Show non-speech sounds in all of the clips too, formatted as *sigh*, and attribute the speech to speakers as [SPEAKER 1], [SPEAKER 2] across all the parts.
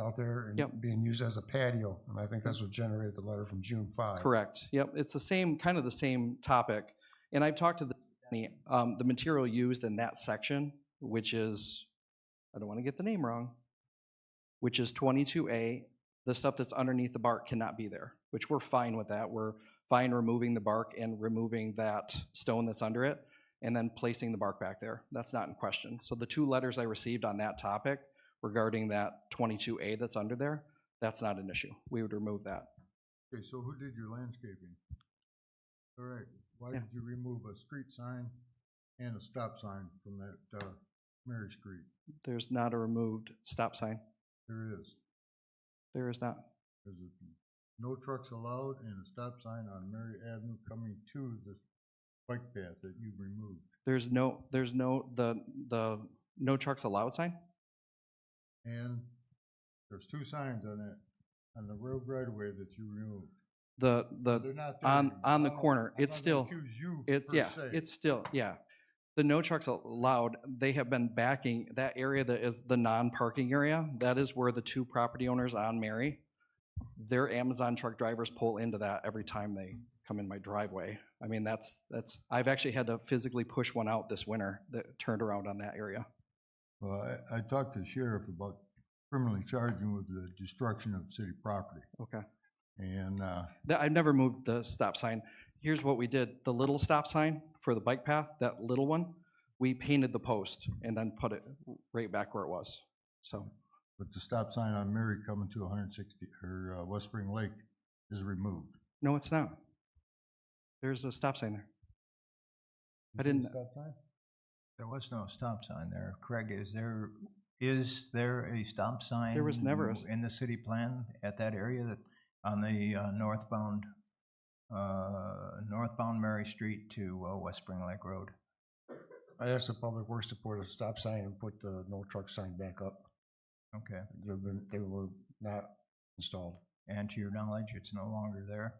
[SPEAKER 1] out there
[SPEAKER 2] Yep. Mm.
[SPEAKER 1] and being used as a patio, and I think that's what generated the letter from June 5.
[SPEAKER 2] Correct. Yep. It's the same, kind of the same topic. And I've talked to the, um, the material used in that section, which is, I don't want to get the name wrong, which is 22A. The stuff that's underneath the bark cannot be there, which we're fine with that. We're fine removing the bark and removing that stone that's under it and then placing the bark back there. That's not in question. So the two letters I received on that topic regarding that 22A that's under there, that's not an issue. We would remove that.
[SPEAKER 3] Okay, so who did your landscaping? All right, why
[SPEAKER 2] Yeah.
[SPEAKER 3] did you remove a street sign and a stop sign from that, uh, Mary Street?
[SPEAKER 2] There's not a removed stop sign.
[SPEAKER 3] There is,
[SPEAKER 2] There is not.
[SPEAKER 3] there's a, no trucks allowed and a stop sign on Mary Avenue coming to the bike path that you removed.
[SPEAKER 2] There's no, there's no, the, the no trucks allowed sign?
[SPEAKER 3] And there's two signs on that, on the road right away that you removed.
[SPEAKER 2] The,
[SPEAKER 3] They're
[SPEAKER 2] the,
[SPEAKER 3] not there
[SPEAKER 2] Uh, on-
[SPEAKER 3] anymore. Oh,
[SPEAKER 2] on the
[SPEAKER 3] I'm not-
[SPEAKER 2] corner,
[SPEAKER 3] I'm
[SPEAKER 2] it's
[SPEAKER 3] not
[SPEAKER 2] still-
[SPEAKER 3] gonna accuse you
[SPEAKER 2] it's,
[SPEAKER 3] per
[SPEAKER 2] yeah,
[SPEAKER 3] se.
[SPEAKER 2] it's still, yeah. The no trucks allowed, they have been backing, that area that is the non-parking area, that is where the two property owners on Mary, their Amazon truck drivers pull into that every time they come in my driveway. I mean, that's, that's, I've actually had to physically push one out this winter that turned around on that area.
[SPEAKER 3] Well, I, I talked to the sheriff about criminally charging with the destruction of city property,
[SPEAKER 2] Okay.
[SPEAKER 3] and, uh,
[SPEAKER 2] That, I've never moved the stop sign. Here's what we did, the little stop sign for the bike path, that little one, we painted the post and then put it right back where it was. So,
[SPEAKER 3] but the stop sign on Mary coming to one hundred sixty, or, uh, West Spring Lake is removed.
[SPEAKER 2] no, it's not. There's a stop sign there. I didn't-
[SPEAKER 3] Stop sign?
[SPEAKER 4] There was no stop sign there. Craig, is there, is there a stop sign?
[SPEAKER 2] was never a s-
[SPEAKER 4] In the city plan at that area that, on the uh, northbound, uh, northbound Mary Street to uh, West Spring Lake Road?
[SPEAKER 1] I asked the Public Works to put a stop sign and put the no truck sign back up.
[SPEAKER 4] Okay.
[SPEAKER 1] They've been, they were not installed.
[SPEAKER 4] And to your knowledge, it's no longer there?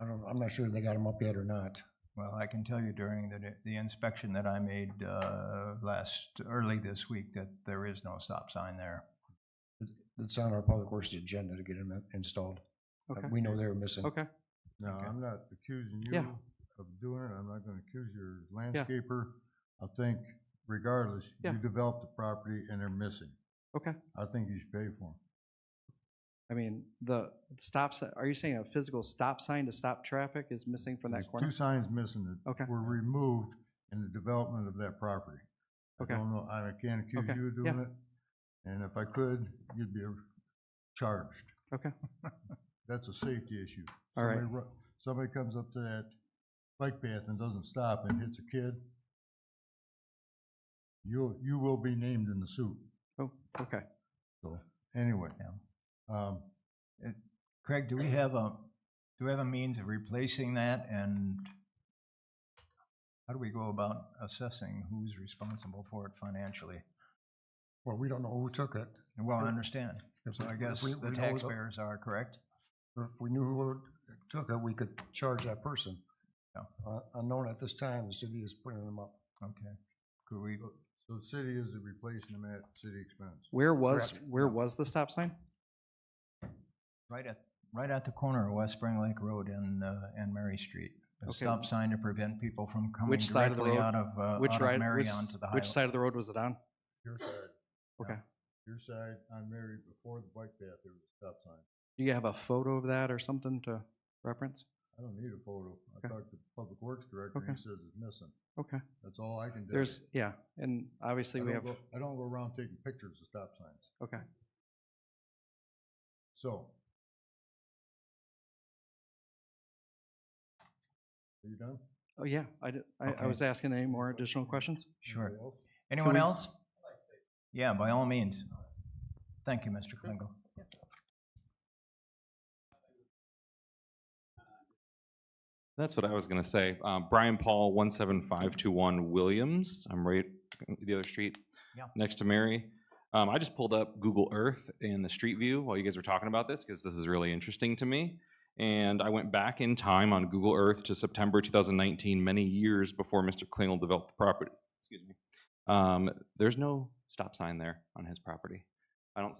[SPEAKER 1] I don't, I'm not sure if they got them up yet or not.
[SPEAKER 4] Well, I can tell you during the, the inspection that I made, uh, last, early this week, that there is no stop sign there.
[SPEAKER 1] It's on our Public Works agenda to get them installed. Uh,
[SPEAKER 2] Okay,
[SPEAKER 1] We know they were missing.
[SPEAKER 2] okay,
[SPEAKER 3] No,
[SPEAKER 4] Okay.
[SPEAKER 3] I'm not accusing you
[SPEAKER 2] Yeah.
[SPEAKER 3] of doing it, I'm not gonna accuse your landscaper. I think regardless,
[SPEAKER 2] Yeah.
[SPEAKER 3] you developed the property and they're missing.
[SPEAKER 2] okay.
[SPEAKER 3] I think you should pay for them.
[SPEAKER 2] I mean, the stop sign, are you saying a physical stop sign to stop traffic is missing from that
[SPEAKER 3] There's
[SPEAKER 2] corner?
[SPEAKER 3] Two signs missing
[SPEAKER 2] Okay.
[SPEAKER 3] that were removed in the development of that property. I
[SPEAKER 2] Okay.
[SPEAKER 3] don't know, I can't accuse
[SPEAKER 2] Okay,
[SPEAKER 3] you of
[SPEAKER 2] yeah.
[SPEAKER 3] doing it, and if I could, you'd be charged.
[SPEAKER 2] Okay.
[SPEAKER 3] *laughs* That's a safety issue.
[SPEAKER 2] All right.
[SPEAKER 3] Somebody ru- Somebody comes up to that bike path and doesn't stop and hits a kid, you'll, you will be named in the suit,
[SPEAKER 2] Oh, okay.
[SPEAKER 3] so, anyway.
[SPEAKER 4] Yeah.
[SPEAKER 3] Um,
[SPEAKER 4] Craig, do we have a, do we have a means of replacing that and how do we go about assessing who's responsible for it financially?
[SPEAKER 1] Well, we don't know who took it.
[SPEAKER 4] Well, I understand.
[SPEAKER 1] If
[SPEAKER 4] So
[SPEAKER 1] we-
[SPEAKER 4] I
[SPEAKER 1] if
[SPEAKER 4] guess
[SPEAKER 1] we- we
[SPEAKER 4] the
[SPEAKER 1] know who
[SPEAKER 4] taxpayers are, correct?
[SPEAKER 1] If we knew who took it, we could charge that person.
[SPEAKER 4] Yeah.
[SPEAKER 1] Uh, Unknown at this time, the city is putting them up.
[SPEAKER 4] Okay. Could we,
[SPEAKER 3] so- so the city is replacing them at city expense.
[SPEAKER 2] Where was,
[SPEAKER 1] Correct.
[SPEAKER 2] where was the stop sign?
[SPEAKER 4] right at, right at the corner of West Spring Lake Road and, uh, and Mary Street. A
[SPEAKER 2] Okay.
[SPEAKER 4] stop sign to prevent people from coming
[SPEAKER 2] Which side of the
[SPEAKER 4] directly
[SPEAKER 2] road?
[SPEAKER 4] out of, uh,
[SPEAKER 2] Which
[SPEAKER 4] out of
[SPEAKER 2] right,
[SPEAKER 4] Mary
[SPEAKER 2] which,
[SPEAKER 4] onto the highway.
[SPEAKER 2] which side of the road was it on?
[SPEAKER 3] Your side.
[SPEAKER 2] Okay.
[SPEAKER 3] Your side on Mary, before the bike path, there was a stop sign.
[SPEAKER 2] Do you have a photo of that or something to reference?
[SPEAKER 3] I don't need a photo. I
[SPEAKER 2] Okay.
[SPEAKER 3] talked to the Public Works Director,
[SPEAKER 2] Okay.
[SPEAKER 3] and he says it's missing.
[SPEAKER 2] Okay.
[SPEAKER 3] That's all I can do.
[SPEAKER 2] There's, yeah, and
[SPEAKER 3] I
[SPEAKER 2] obviously we have,
[SPEAKER 3] don't go, I don't go around taking pictures of stop signs.
[SPEAKER 2] okay.
[SPEAKER 3] So. Are you done?
[SPEAKER 2] Oh, yeah, I did, I, I
[SPEAKER 4] Okay.
[SPEAKER 2] was asking any more additional questions?
[SPEAKER 4] Sure.
[SPEAKER 3] Anybody else?
[SPEAKER 4] Anyone
[SPEAKER 2] we-
[SPEAKER 4] else? Yeah, by all means. Thank you, Mr. Klingel.
[SPEAKER 5] That's what I was gonna say. Um, Brian Paul, one seven five two one Williams. I'm right the other street.
[SPEAKER 4] Yeah.
[SPEAKER 5] Next to Mary. Um, I just pulled up Google Earth and the street view while you guys were talking about this because this is really interesting to me. And I went back in time on Google Earth to September 2019, many years before Mr. Klingel developed the property. Excuse me. Um, there's no stop sign there on his property. I don't see.